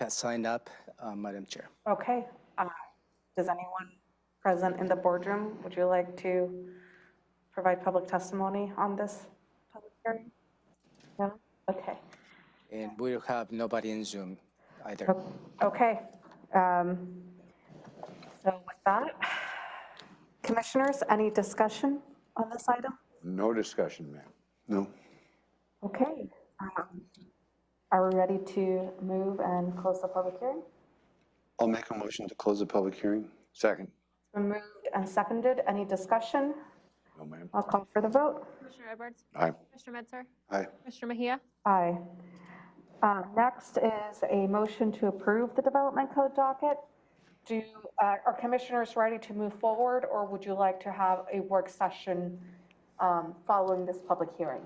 Pat signed up, uh, Madam Chair. Okay. uh, Does anyone present in the boardroom, would you like to provide public testimony on this public hearing? No? Okay. And we will have nobody in Zoom either. Okay. um, So with that, commissioners, any discussion on this item? No discussion, ma'am. No. Okay. um, Are we ready to move and close the public hearing? I'll make a motion to close the public hearing. Second. It's been moved and seconded. Any discussion? No, ma'am. I'll call for the vote. Commissioner Edwards? Aye. Commissioner Metzer? Aye. Commissioner Mejia? Aye. Uh, Next is a motion to approve the development code docket. Do, uh, are commissioners ready to move forward, or would you like to have a work session um, following this public hearing?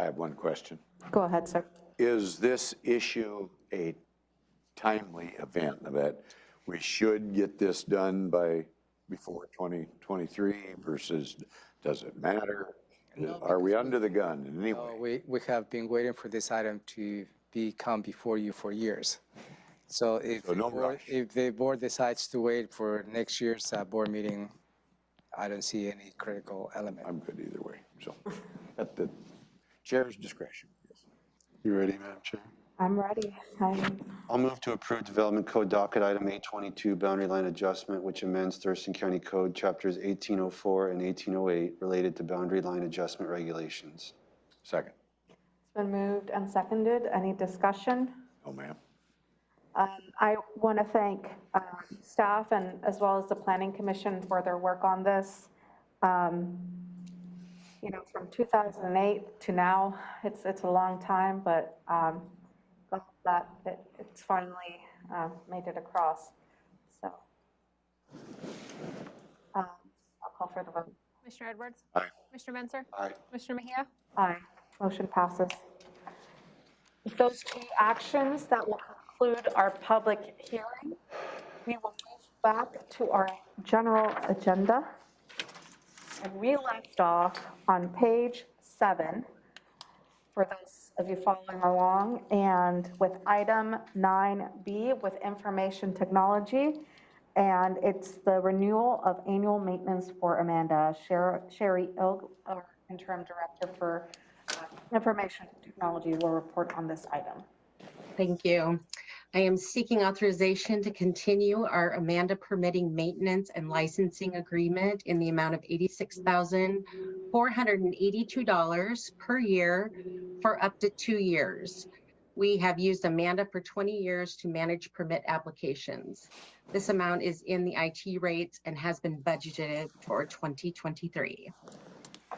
I have one question. Go ahead, sir. Is this issue a timely event that we should get this done by before 2023 versus does it matter? Are we under the gun in any Uh, way? We, we have been waiting for this item to be come before you for years. So if, So the no board- rush. if the board decides to wait for next year's uh, board meeting, I don't see any critical element. I'm good either way, so at the chair's discretion. You ready, Madam Chair? I'm ready. I'm- I'll move to approve Development Code Docket Item 822, Boundary Line Adjustment, which amends Thurston County Code Chapters 1804 and 1808 related to boundary line adjustment regulations. Second. It's been moved and seconded. Any discussion? No, ma'am. Um, I want to thank uh, staff and as well as the Planning Commission for their work on this. Um, You know, from 2008 to now, it's, it's a long time, but um, glad that it- it's finally um, made it across, so. um, I'll call for the vote. Commissioner Edwards? Aye. Commissioner Mentzer? Aye. Commissioner Mejia? Aye, motion passes. With Those two actions that will conclude our public hearing. We will move back to our general agenda. And we left off on page seven, for those of you following along, and with item 9B with information technology. And it's the renewal of annual maintenance for Amanda Sher- Sherry Ilg, our interim director for uh, information technology, will report on this item. Thank you. I am seeking authorization to continue our Amanda permitting maintenance and licensing agreement in the amount of $86,482 per year for up to two years. We have used Amanda for 20 years to manage permit applications. This amount is in the IT rates and has been budgeted for 2023. Do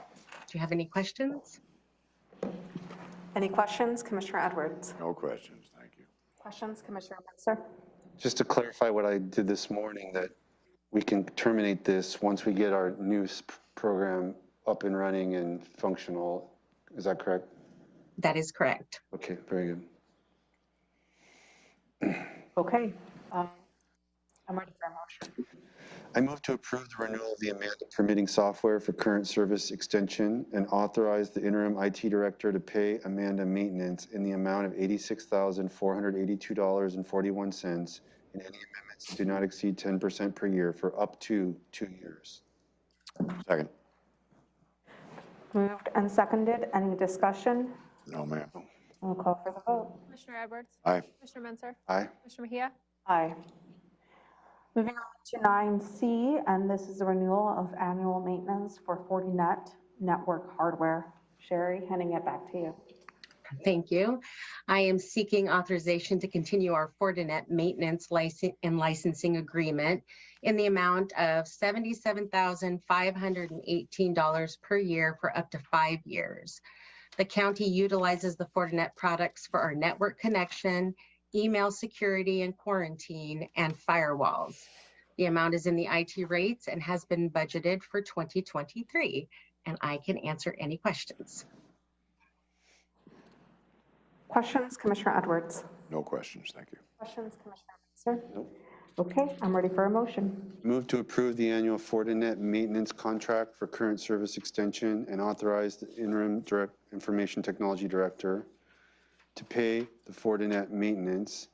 you have any questions? Any questions, Commissioner Edwards? No questions, thank you. Questions, Commissioner Mensah? Just to clarify what I did this morning, that we can terminate this once we get our new s- program up and running and functional. Is that correct? That is correct. Okay, very good. Okay. um, I'm ready for a motion. I move to approve the renewal of the Amanda permitting software for current service extension and authorize the interim IT director to pay Amanda maintenance in the amount of $86,482.41 and any amendments that do not exceed 10% per year for up to two years. Second. Moved and seconded. Any discussion? No, ma'am. I'll call for the vote. Commissioner Edwards? Aye. Commissioner Mentzer? Aye. Commissioner Mejia? Aye. Moving on to 9C, and this is the renewal of annual maintenance for Fortinet network hardware. Sherry, handing it back to you. Thank you. I am seeking authorization to continue our Fortinet maintenance license and licensing agreement in the amount of $77,518 per year for up to five years. The county utilizes the Fortinet products for our network connection, email security and quarantine, and firewalls. The amount is in the IT rates and has been budgeted for 2023, and I can answer any questions. Questions, Commissioner Edwards? No questions, thank you. Questions, Commissioner Mensah? Nope. Okay, I'm ready for a motion. Move to approve the annual Fortinet maintenance contract for current service extension and authorize the interim direct, information technology director to pay the Fortinet maintenance